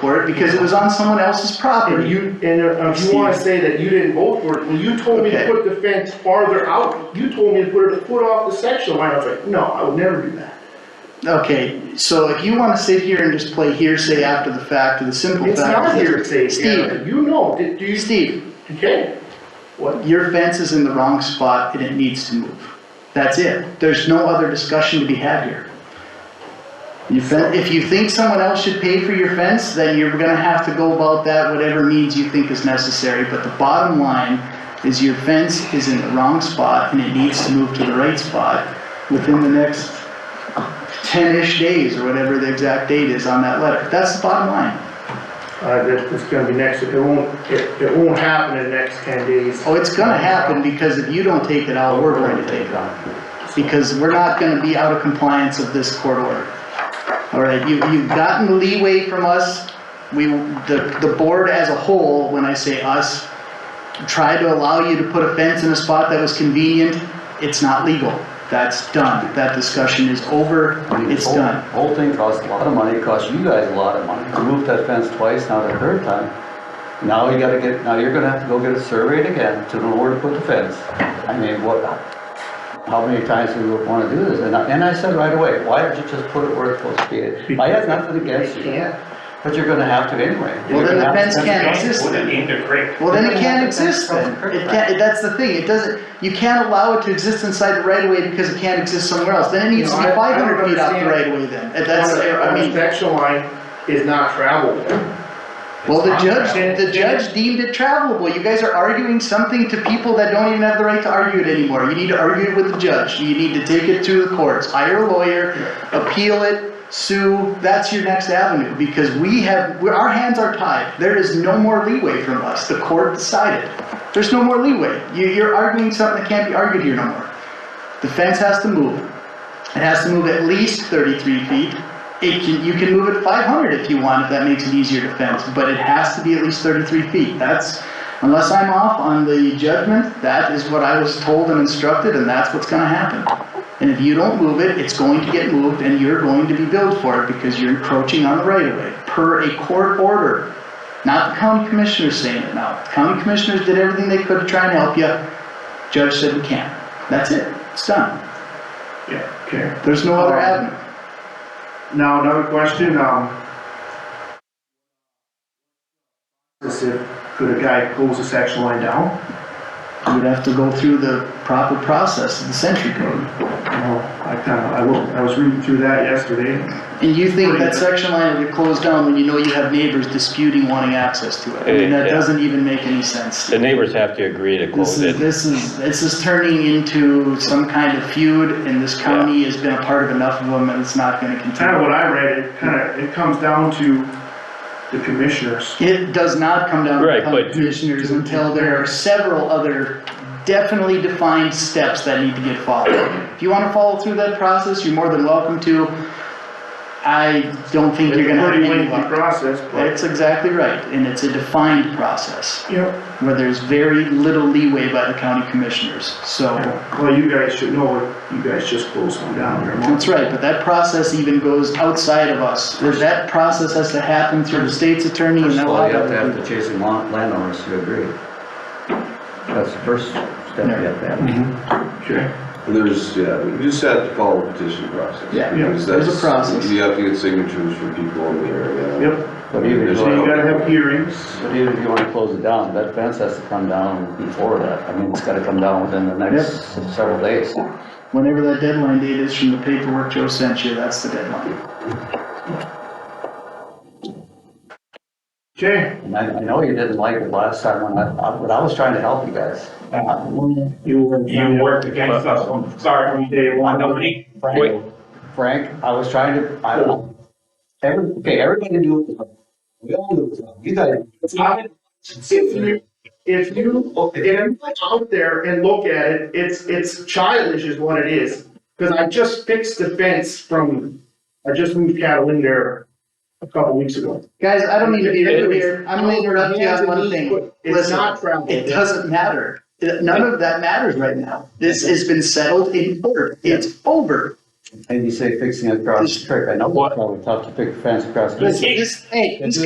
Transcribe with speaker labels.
Speaker 1: for it because it was on someone else's property.
Speaker 2: And you, and uh, if you wanna say that you didn't vote for it, when you told me to
Speaker 1: Okay.
Speaker 2: put the fence farther out, you told me to put it a foot off the section line, I was like, no, I would never do that.
Speaker 1: Okay, so if you wanna sit here and just play hearsay after the fact, or the simple fact.
Speaker 2: It's not
Speaker 1: is-
Speaker 2: hearsay,
Speaker 1: Steve,
Speaker 2: Gavin, you know, did, do you,
Speaker 1: Steve,
Speaker 2: okay? What?
Speaker 1: your fence is in the wrong spot and it needs to move. That's it. There's no other discussion to be had here. You fe- if you think someone else should pay for your fence, then you're gonna have to go about that whatever means you think is necessary, but the bottom line is your fence is in the wrong spot and it needs to move to the right spot within the next ten-ish days or whatever the exact date is on that letter. That's the bottom line.
Speaker 2: Uh, that, it's gonna be next, it won't, it, it won't happen in the next ten days.
Speaker 1: Oh, it's gonna happen because if you don't take it out, we're going to take it out. Because we're not gonna be out of compliance of this court order. All right, you, you've gotten leeway from us. We, the, the board as a whole, when I say us, tried to allow you to put a fence in a spot that was convenient. It's not legal. That's done. That discussion is over.
Speaker 3: I mean, this
Speaker 1: It's
Speaker 3: whole-
Speaker 1: done.
Speaker 3: Whole thing costs a lot of money, It costs you guys a lot of money. You moved that fence twice, now the third time. Now you gotta get, now you're gonna have to go get it surveyed again to know where to put the fence. I mean, what, how many times do you wanna do this? And I, and I said right away, why don't you just put it where it's supposed to be? I have nothing against
Speaker 2: You
Speaker 3: you,
Speaker 2: can't.
Speaker 3: but you're gonna have to anyway.
Speaker 1: Well, then the
Speaker 3: You're gonna have to
Speaker 1: fence can't
Speaker 3: fence-
Speaker 1: exist
Speaker 4: Put
Speaker 1: then.
Speaker 4: it in the creek.
Speaker 1: Well, then it
Speaker 3: Then we
Speaker 1: can't
Speaker 3: have to fence
Speaker 1: exist then.
Speaker 3: from the
Speaker 1: It
Speaker 3: curb
Speaker 1: can't, that's the thing, it doesn't, you can't allow it to exist inside the right of way because it can't exist somewhere else. Then it needs to be
Speaker 2: You know, I- I don't
Speaker 1: five hundred feet off the
Speaker 2: understand.
Speaker 1: right of way then. And That's, I
Speaker 2: On the
Speaker 1: mean,
Speaker 2: section line is not traveled.
Speaker 1: well, the judge,
Speaker 2: Understand-
Speaker 1: the judge deemed it travelable. You guys are arguing something to people that don't even have the right to argue it anymore. You need to argue it with the judge. You need to take it to the courts, hire a lawyer, appeal it, sue. That's your next avenue because we have, we're- our hands are tied. There is no more leeway from us. The court decided. There's no more leeway. You, you're arguing something that can't be argued here no more. The fence has to move. It has to move at least thirty-three feet. It can, you can move it five hundred if you want, if that makes it easier to fence, but it has to be at least thirty-three feet. That's, unless I'm off on the judgment, that is what I was told and instructed, and that's what's gonna happen. And if you don't move it, it's going to get moved and you're going to be billed for it because you're encroaching on the right of way, per a court order. Not the county commissioners saying it now. The County commissioners did everything they could to try and help you. Judge said we can't. That's it. It's done.
Speaker 2: Yeah, okay.
Speaker 1: There's no other avenue.
Speaker 2: Now, another question, um. Is if, could a guy pulls the section line down?
Speaker 1: You would have to go through the proper process of the century code.
Speaker 2: No, I kinda, I looked, I was reading through that yesterday.
Speaker 1: And you think that section line would get closed down when you know you have neighbors disputing wanting access to it? I mean, that
Speaker 5: Eh, Yeah.
Speaker 1: doesn't even make any sense.
Speaker 5: The neighbors have to agree to
Speaker 1: This
Speaker 5: close
Speaker 1: is,
Speaker 5: it.
Speaker 1: this is, this is turning into some kind of feud and this county has been a part of enough of them and it's not gonna
Speaker 2: Kinda
Speaker 1: continue.
Speaker 2: what I read, it kinda, it comes down to the commissioners.
Speaker 1: It does not come down to
Speaker 5: Right,
Speaker 1: county
Speaker 5: but-
Speaker 1: commissioners until there are several other definitely defined steps that need to get followed. If you wanna follow through that process, you're more than welcome to. I don't think
Speaker 2: It's
Speaker 1: you're
Speaker 2: a
Speaker 1: gonna have
Speaker 2: pretty
Speaker 1: any
Speaker 2: lengthy
Speaker 1: luck.
Speaker 2: process, but.
Speaker 1: That's exactly right, and it's a defined process,
Speaker 2: Yep.
Speaker 1: where there's very little leeway by the county commissioners, so.
Speaker 2: Well, you guys should know, you guys just closed one down here. a month
Speaker 1: That's right, but that process even goes outside of us, That- that process has to happen through the state's attorney and
Speaker 3: First
Speaker 1: that
Speaker 3: of all, you have to have the
Speaker 1: law.
Speaker 3: chasing lan- landowners to agree. That's the first step you have to have.
Speaker 2: Okay.
Speaker 6: There's, yeah, you just have to follow the petition process.
Speaker 1: Yeah,
Speaker 2: Yeah.
Speaker 6: Because
Speaker 1: there's a
Speaker 6: that's-
Speaker 1: process.
Speaker 6: You have to get signatures from people in the area.
Speaker 2: Yep,
Speaker 3: But even if
Speaker 6: There's
Speaker 2: so you
Speaker 6: no-
Speaker 2: gotta have hearings.
Speaker 3: But even if you wanna close it down, that fence has to come down before that, I mean, it's gotta come down within the next several days.
Speaker 1: Whenever that deadline date is from the paperwork Joe sent you, that's the deadline.
Speaker 2: Okay,
Speaker 3: And I, I know you didn't like it last time when I, I- but I was trying to help you guys.
Speaker 2: you were.
Speaker 4: You worked against us from start from day one, nobody.
Speaker 3: Frank, Frank, I was trying to, I, every, okay, everybody knew it was wrong. We all knew it was wrong, you guys.
Speaker 2: If you, if you, if you go out there and look at it, it's, it's childish is what it is. Cause I just fixed the fence from, I just moved cattle in there a couple weeks ago.
Speaker 1: Guys, I don't need to be rude here, I'm gonna interrupt you on one thing.
Speaker 2: It's not
Speaker 1: Listen,
Speaker 2: travel.
Speaker 1: it doesn't matter, none of that matters right now. This has been settled in court, it's over.
Speaker 3: And you say fixing it across the creek, I know it's probably tough to pick a fence across the creek.
Speaker 1: This, this, hey, this